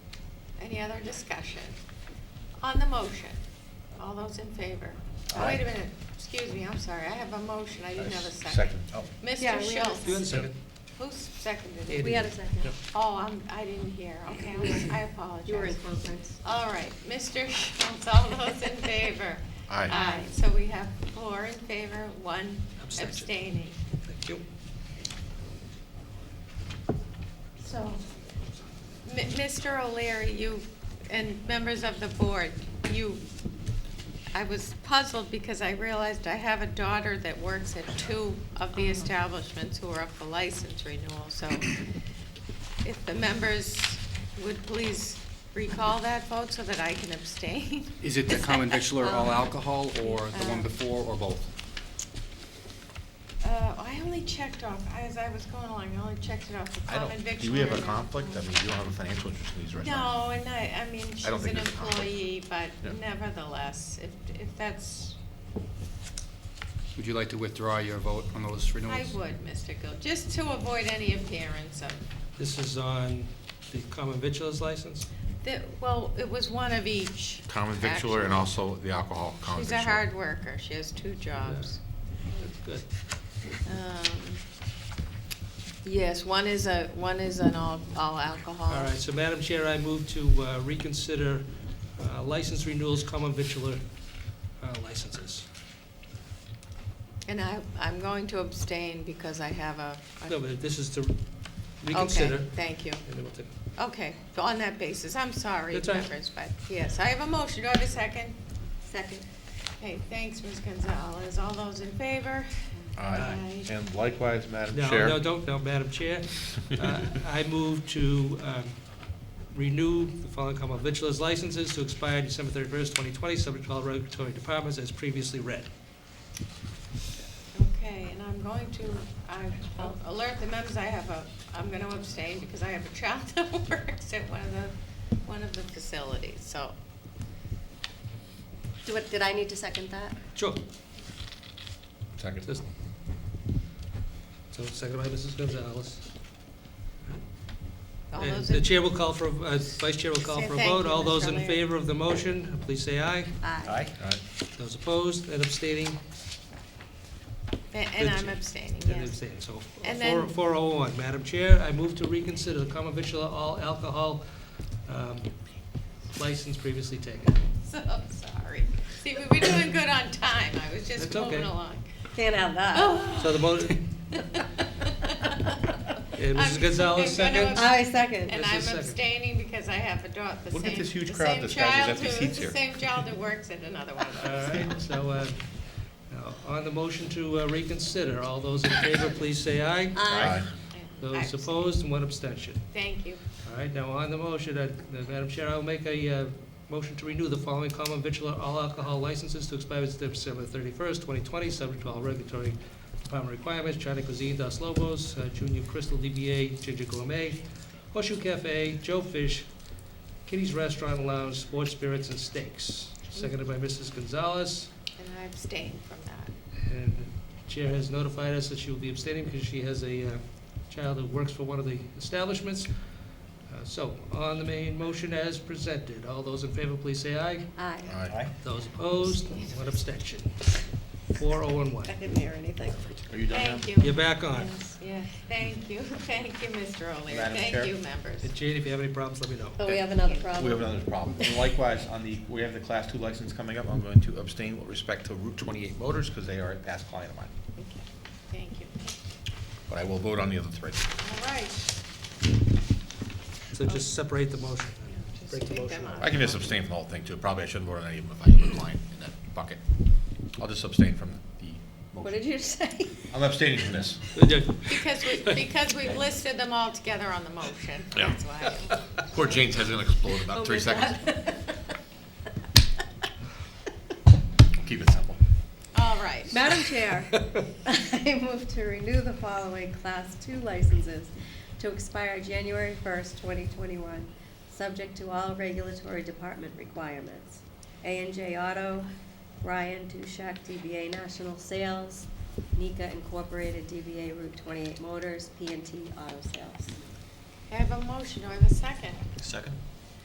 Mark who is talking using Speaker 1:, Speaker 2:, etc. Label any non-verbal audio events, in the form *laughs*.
Speaker 1: Any other discussion? On the motion, all those in favor? Oh, Wait a
Speaker 2: Aye.
Speaker 1: minute, excuse me, I'm sorry, I have a motion, I didn't have a second.
Speaker 2: Second.
Speaker 3: Yeah,
Speaker 1: Mr.
Speaker 3: we had a
Speaker 1: Schultz?
Speaker 4: You had a second?
Speaker 1: Who seconded
Speaker 4: Katie.
Speaker 1: it?
Speaker 3: We had a second.
Speaker 4: Yep.
Speaker 1: Oh, I'm, I didn't hear, okay, I'm- I apologize.
Speaker 3: You were in conference.
Speaker 1: All right, Mr. Schultz, all those in favor?
Speaker 2: Aye.
Speaker 1: Aye, so we have four in favor, one
Speaker 4: Abstention.
Speaker 1: abstaining.
Speaker 4: Thank you.
Speaker 1: So, M- Mr. O'Leary, you, and members of the board, you, I was puzzled because I realized I have a daughter that works at two of the establishments who are up for license renewal, so if the members would please recall that vote so that I can abstain.
Speaker 5: Is
Speaker 1: *laughs*
Speaker 5: it the common victular all
Speaker 1: Um,
Speaker 5: alcohol, or the one
Speaker 1: uh,
Speaker 5: before, or both?
Speaker 1: Uh, I only checked off, as I was going along, I only checked it off, the
Speaker 2: I
Speaker 1: common
Speaker 2: don't,
Speaker 1: victular.
Speaker 2: do we have a
Speaker 1: and-
Speaker 2: conflict? I mean, you don't have a financial interest in these right now.
Speaker 1: No, and I, I mean, she's
Speaker 2: don't think
Speaker 1: an
Speaker 2: there's a conflict.
Speaker 1: employee, but
Speaker 2: Yeah.
Speaker 1: nevertheless, if, if that's,
Speaker 5: Would you like to withdraw your vote on those
Speaker 1: I
Speaker 5: renewals?
Speaker 1: would, Mr. Gill, just to avoid any appearance of,
Speaker 4: This is on the common victuals license?
Speaker 1: the- well, it was one of each.
Speaker 2: Common victular and
Speaker 1: actually.
Speaker 2: also the alcohol. common
Speaker 1: She's a
Speaker 2: victular.
Speaker 1: hard worker, she has two jobs.
Speaker 4: That's good.
Speaker 1: Um, Yes, one is a, one is an all, all
Speaker 3: Uh,
Speaker 1: alcohol.
Speaker 4: All right, so Madam Chair, I move to uh, reconsider uh, license renewals, common victular uh, licenses.
Speaker 1: And I, I'm going to abstain because I have a. a-
Speaker 4: No, but this is to reconsider.
Speaker 1: Okay, thank you.
Speaker 4: and then we'll take-
Speaker 1: Okay, on that basis, I'm sorry,
Speaker 4: That's all right.
Speaker 1: members, but yes, I have a motion, do I have a second?
Speaker 3: Second.
Speaker 1: Okay, thanks, Ms. Gonzalez, all those in favor?
Speaker 2: Aye. And likewise, Madam
Speaker 4: No,
Speaker 2: Chair.
Speaker 4: no, don't, no, Madam Chair. Uh,
Speaker 2: *laughs*
Speaker 4: I move to um, renew the following common victuals licenses to expire December 31st, 2020, subject to all regulatory departments as previously read.
Speaker 1: Okay, and I'm going to, I- I'll alert the members, I have a, I'm gonna abstain because I have a child *laughs* that works at one of the, one of the facilities, so.
Speaker 3: Do what, did I need to second that?
Speaker 4: Sure.
Speaker 2: Second.
Speaker 4: Just- So, second by Mrs. Gonzalez.
Speaker 1: all
Speaker 4: And
Speaker 1: those
Speaker 4: The
Speaker 1: in-
Speaker 4: chair will call for, uh, Vice Chair will call
Speaker 1: Say
Speaker 4: for a
Speaker 1: thank
Speaker 4: vote.
Speaker 1: you,
Speaker 4: All
Speaker 1: Mr.
Speaker 4: those in
Speaker 1: O'Leary.
Speaker 4: favor of the motion, please say aye.
Speaker 3: Aye.
Speaker 2: Aye.
Speaker 4: Those opposed and abstaining,
Speaker 1: And
Speaker 4: the
Speaker 1: I'm
Speaker 4: chair.
Speaker 1: abstaining,
Speaker 4: and
Speaker 1: yes.
Speaker 4: abstaining. So,
Speaker 1: And
Speaker 4: four-
Speaker 1: then-
Speaker 4: 401. Madam Chair, I move to reconsider the common victular all alcohol um, license previously taken.
Speaker 1: *laughs* So sorry. See, we were doing good on time, I was just
Speaker 4: That's okay.
Speaker 1: moving along.
Speaker 3: Can't have that.
Speaker 1: Oh. *laughs*
Speaker 4: So the *laughs* uh, motion,
Speaker 1: And
Speaker 4: Mrs. Gonzalez seconds?
Speaker 3: I second.
Speaker 1: And
Speaker 4: Mrs.
Speaker 1: I'm
Speaker 4: Second.
Speaker 1: abstaining because I have a daughter, the
Speaker 2: Look at
Speaker 1: same, the
Speaker 2: this huge
Speaker 1: same
Speaker 2: crowd that's got these
Speaker 1: child
Speaker 2: empty
Speaker 1: who,
Speaker 2: seats
Speaker 1: the
Speaker 2: here.
Speaker 1: same child that works at another one
Speaker 2: *laughs*
Speaker 1: of
Speaker 4: all
Speaker 1: those.
Speaker 4: right, so uh, now, on the motion to uh, reconsider, all those in favor, please say aye.
Speaker 2: Aye.
Speaker 1: I-
Speaker 4: Those opposed and one abstention.
Speaker 1: Thank you.
Speaker 4: All right, now on the motion, uh, Madam Chair, I'll make a uh, motion to renew the following common victular all alcohol licenses to expire December thirty-first, twenty twenty, subject to all regulatory department requirements, China Cuisine, Dos Lobos, uh, Junior Crystal, DBA, Ginger Gourmet, Horseshoe Cafe, Joe Fish, Kitty's Restaurant Lounge, Sports Spirits and Steaks, seconded by Mrs. Gonzalez.
Speaker 1: And I abstain from that.
Speaker 4: And the Chair has notified us that she will be abstaining because she has a uh, child who works for one of the establishments. Uh, So, on the main motion as presented, all those in favor, please say aye.
Speaker 3: Aye.
Speaker 2: Aye.
Speaker 4: Those opposed, one abstention. Four, oh, and one.
Speaker 3: I didn't hear anything.
Speaker 2: Are you done now?
Speaker 1: Thank you.
Speaker 4: You're back on.
Speaker 1: Yes, yes. Thank you, *laughs* thank you, Mr. O'Leary.
Speaker 2: Madam Chair?
Speaker 1: Thank you, members.
Speaker 4: And Jane, if you have any problems, let me know.
Speaker 3: But Oh, we have another problem.
Speaker 2: We have another problem. And likewise, on the, we have the class two license coming up. I'm going to abstain with respect to Route twenty-eight Motors because they are a past client of mine.
Speaker 1: Okay, Thank you.
Speaker 2: But I will vote on the other three.
Speaker 1: All right.
Speaker 4: So just separate the motion.
Speaker 1: Just
Speaker 4: Break the
Speaker 1: take
Speaker 4: motion.
Speaker 1: them out.
Speaker 2: I can just abstain from the whole thing too. Probably I shouldn't vote on any of them if I have a client in that bucket. I'll just abstain from the motion.
Speaker 3: What did you say? *laughs*
Speaker 2: I'm abstaining from this.
Speaker 1: Because
Speaker 2: *laughs*
Speaker 1: we, because we've listed them all together on the motion,
Speaker 2: Yeah.
Speaker 1: that's
Speaker 2: *laughs*
Speaker 1: why.
Speaker 2: Poor Jane's head's gonna explode in
Speaker 3: Oh,
Speaker 2: about three
Speaker 3: with
Speaker 2: seconds.
Speaker 3: that.
Speaker 2: Keep it simple.
Speaker 1: *laughs* All right.
Speaker 3: Madam Chair, I move to renew the following Class Two licenses to expire January first, twenty twenty-one, subject to all regulatory department requirements. A and J Auto, Ryan Dushak, DBA National Sales, Nika Incorporated, DBA Route twenty-eight Motors, P and T Auto Sales.
Speaker 1: I have a motion, do I have a second?
Speaker 2: Second?